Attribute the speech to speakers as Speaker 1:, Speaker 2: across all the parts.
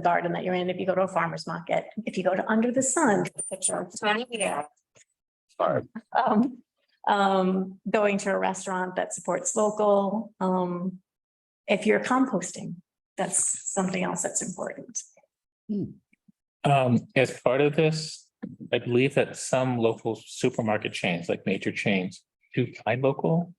Speaker 1: garden that you're in, if you go to a farmer's market, if you go to under the sun, picture. of Tony Vito,
Speaker 2: Sorry.
Speaker 1: um, um, going to a restaurant that supports local, um, if you're composting, that's something else that's important.
Speaker 2: Um, as part of this, I believe that some local supermarket chains, like major chains, do find local.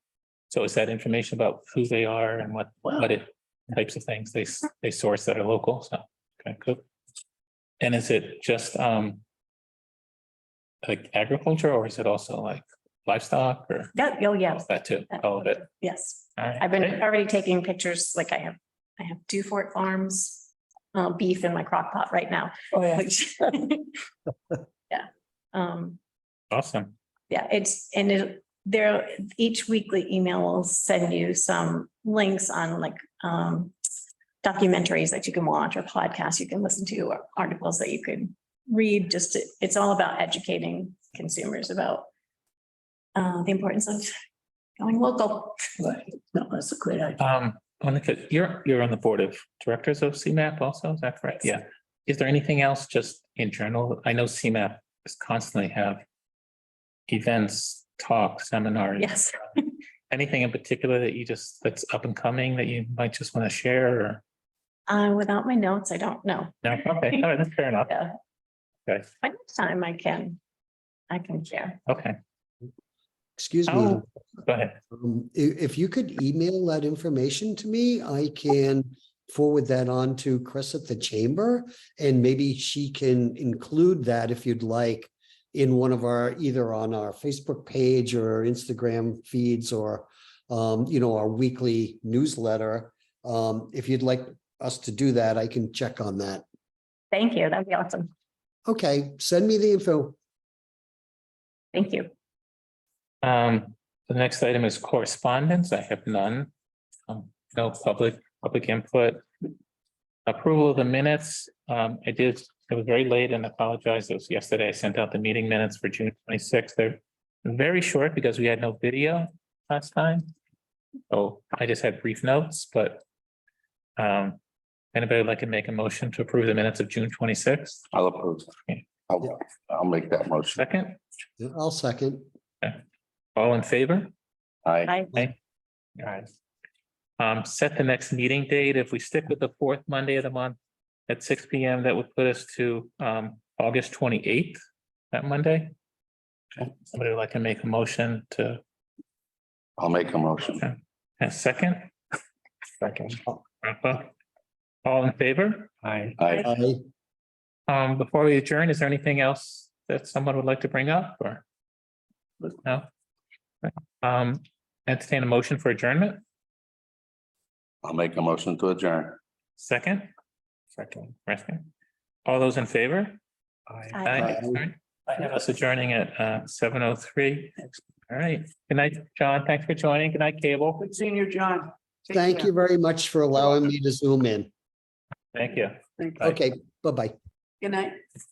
Speaker 2: So is that information about who they are and what, what it, types of things they, s- they source that are local, so, okay, good. And is it just, um, like agriculture, or is it also like livestock or
Speaker 1: That, oh, yeah.
Speaker 2: that too, all of it?
Speaker 1: Yes,
Speaker 2: All right,
Speaker 1: I've been
Speaker 2: great.
Speaker 1: already taking pictures, like I have, I have two Fort Farms, uh, beef in my crock pot right now.
Speaker 3: Oh, yeah.
Speaker 1: which- Yeah, um,
Speaker 2: Awesome,
Speaker 1: Yeah, it's, and it, there, each weekly email will send you some links on like, um, documentaries that you can watch or podcasts you can listen to or articles that you could read, just, to- it's all about educating consumers about uh, the importance of going local.
Speaker 3: Right, no, that's a great idea.
Speaker 2: um, on the, you're, you're on the board of directors of CMAP also, is that correct? Yeah. Is there anything else just in general? I know CMAP is constantly have events, talks, seminars,
Speaker 1: Yes,
Speaker 2: anything in particular that you just, that's up and coming that you might just want to share or?
Speaker 1: uh, without my notes, I don't know.
Speaker 2: No, okay, all right, that's fair enough.
Speaker 1: Yeah.
Speaker 2: Okay.
Speaker 1: By next time I can, I can share.
Speaker 2: Okay,
Speaker 4: Excuse me,
Speaker 2: Oh. go ahead.
Speaker 4: um, i- if you could email that information to me, I can forward that on to Chris at the chamber. And maybe she can include that if you'd like in one of our, either on our Facebook page or Instagram feeds or um, you know, our weekly newsletter. Um, if you'd like us to do that, I can check on that.
Speaker 1: Thank you. That'd be awesome.
Speaker 4: Okay, send me the info.
Speaker 1: Thank you.
Speaker 2: Um, the next item is correspondence. I have none. Um, no public, public input. Approval of the minutes. Um, I did, it was very late and I apologize. It was yesterday. I sent out the meeting minutes for June twenty-sixth. They're very short because we had no video last time. So I just had brief notes, but um, anybody would like to make a motion to approve the minutes of June twenty-sixth?
Speaker 5: I'll approve.
Speaker 2: Okay.
Speaker 4: Yeah.
Speaker 5: I'll, I'll make that motion.
Speaker 2: Second,
Speaker 4: I'll second.
Speaker 2: all in favor?
Speaker 5: I,
Speaker 1: Bye.
Speaker 2: All right. Um, set the next meeting date. If we stick with the fourth Monday of the month at six P M, that would put us to um August twenty eighth, that Monday. Okay, Somebody would like to make a motion to
Speaker 5: I'll make a motion.
Speaker 2: a second? Second. All in favor? Aye.
Speaker 5: I,
Speaker 4: Aye.
Speaker 2: Um, before we adjourn, is there anything else that someone would like to bring up or? No? Um, entertain a motion for adjournment,
Speaker 5: I'll make a motion to adjourn.
Speaker 2: second? Second. All those in favor?
Speaker 1: Aye.
Speaker 2: Aye.
Speaker 4: Aye.
Speaker 2: Sorry. I have us adjourning at uh seven oh three. All right. Good night, John. Thanks for joining. Good night, Cable.
Speaker 3: Good seeing you, John. Take
Speaker 4: Thank
Speaker 3: care.
Speaker 4: you very much for allowing me to zoom in.
Speaker 2: Thank you.
Speaker 3: Thank you.
Speaker 2: Bye.
Speaker 4: Okay, bye-bye.
Speaker 3: Good night.